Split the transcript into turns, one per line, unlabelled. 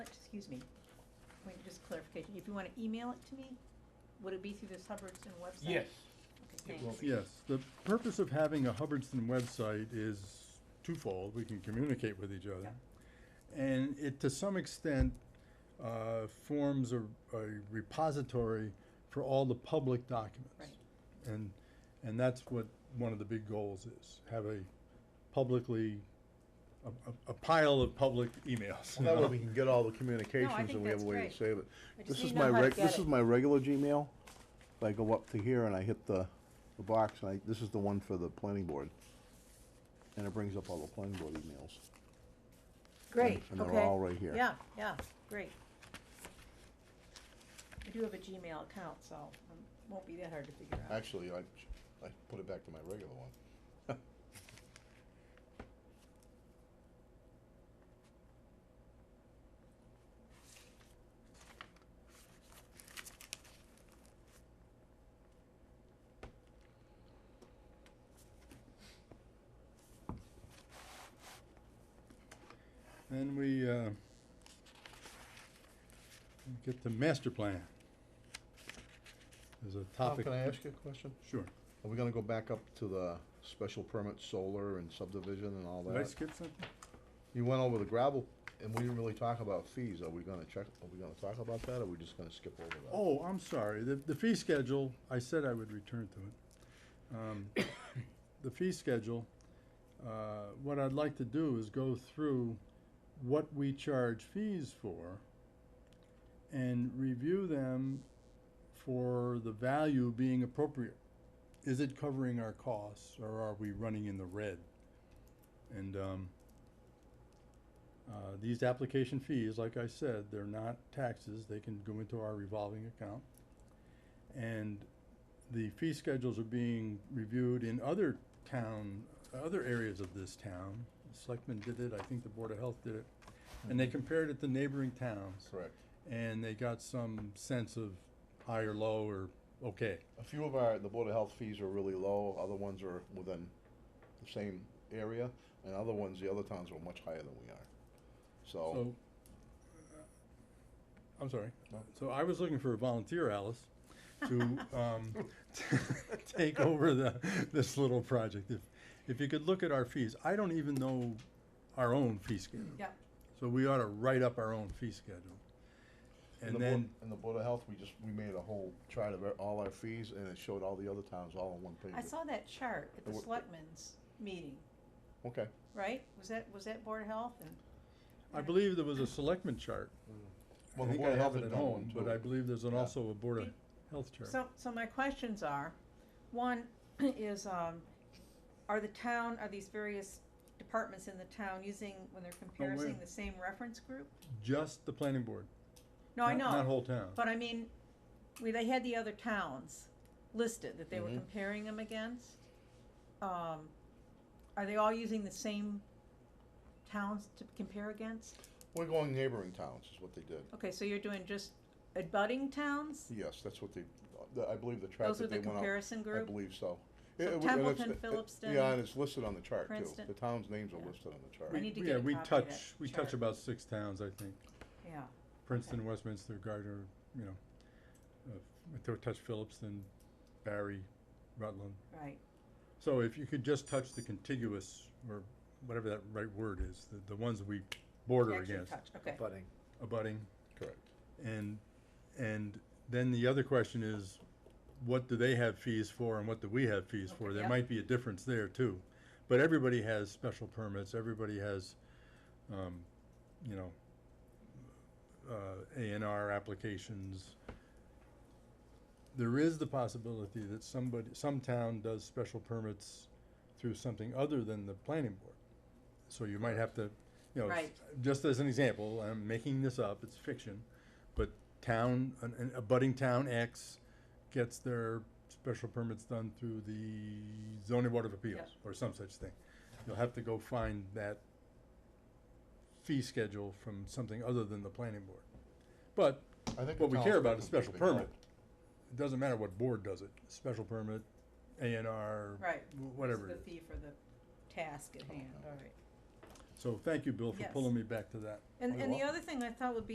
excuse me, wait, just clarification, if you wanna email it to me, would it be through this Hubbardston website?
Yes,
Okay,
it will
thanks.
be.
Yes, the purpose of having a Hubbardston website is twofold, we can communicate with each other.
Yep.
And it, to some extent, uh, forms a, a repository for all the public documents. And, and that's what one of the big goals is, have a publicly, a, a- a pile of public emails. you
That way
know?
we can get all the communications
think
and we have a
that's
way to
great.
save it.
I just
This
need
is
to
my
know how to
reg,
get
this
it.
is my regular Gmail. If I go up to here and I hit the, the box, and I, this is the one for the planning board. And it brings up all the planning board emails.
Great,
and they're
okay.
all right here.
Yeah, yeah, great. I do have a Gmail account, so um, won't be that hard to figure out.
Actually, I, I put it back to my regular one.
Then we, uh, we get to master plan. There's a
Tom,
topic.
can I ask you a question?
Sure.
Are we gonna go back up to the special permit solar and subdivision and all
Did I
that?
skip something?
You went over the gravel and we didn't really talk about fees. Are we gonna check, are we gonna talk about that or are we just gonna skip over that?
Oh, I'm sorry. The, the fee schedule, I said I would return to it. Um, The fee schedule, uh, what I'd like to do is go through what we charge fees for and review them for the value being appropriate. Is it covering our costs or are we running in the red? And, um, uh, these application fees, like I said, they're not taxes, they can go into our revolving account. And the fee schedules are being reviewed in other town, other areas of this town. Selectmen did it, I think the Board of Health did it, and they compared it to neighboring towns.
Correct.
And they got some sense of high or low or okay.
A few of our, the Board of Health fees are really low, other ones are within the same area, and other ones, the other towns are much higher than we are. So,
So, uh, I'm sorry.
No.
So I was looking for a volunteer, Alice, to, um, take over the, this little project. If, if you could look at our fees, I don't even know our own fee schedule.
Yeah,
So we ought to write up our own fee schedule.
in the
And
Board,
then,
in the Board of Health, we just, we made a whole chart of our- all our fees, and it showed all the other towns all on one page.
I saw that chart at the
It wa-
selectmen's meeting,
Okay,
right? Was that, was that Board of Health and?
I believe there was a selectman chart. I
well, the
think
Board
I
of Health
have it
had
at
done one
home,
too.
but I believe there's an
Yeah.
also a Board of
Did-
Health chart.
So, so my questions are, one is, um, are the town, are these various departments in the town using, when they're comparing the same reference group?
Just the planning board.
No, I
not- Not
know,
whole town.
but I mean, we, they had the other towns listed that they were
Mhm.
comparing them against. Um, are they all using the same towns to compare against?
We're going neighboring towns, is what they did.
Okay, so you're doing just abutting towns?
Yes, that's what they, the- I believe the chart
Those are
that they
the
went out,
comparison
I
group?
believe so.
So
It- it w- and it's-
Templeton,
it-
Philipston,
Yeah, and it's listed on the chart too.
Princeton.
The towns' names are
Yeah.
listed on the chart.
I
We-
need to
yeah,
get a
we
copy of
touch-
that
We touch
chart.
about six towns, I think.
Yeah,
Princeton, Westminster, Gardner, you know, uh, if they touch Phillipston, Barry, Rutland.
right.
So if you could just touch the contiguous, or whatever that right word is, the, the ones we border
Actually
against,
touch, Okay.
Budding.
abutting,
Correct.
and, and then the other question is, what do they have fees for and what do we have fees for?
Okay,
There
yeah.
might be a difference there too, but everybody has special permits, everybody has, um, you know, uh, A and R applications. There is the possibility that somebody, some town does special permits through something other than the planning board. So you might have to, you know, s-
Right.
just as an example, I'm making this up, it's fiction, but town, an, an abutting town X gets their special permits done through the zoning board of appeals or some such thing. You'll have to go find that fee schedule from something other than the planning board. But
I think the
what we
towns
care
are
about is special
completely
permit. It doesn't matter what board does it, special permit, A and R,
Right.
whatever
This is
it is. Oh,
the fee for the task at hand, all right.
So thank you, Bill, for
Yes.
pulling me back to that.
And,
you're
and the
welcome.
other thing I thought would be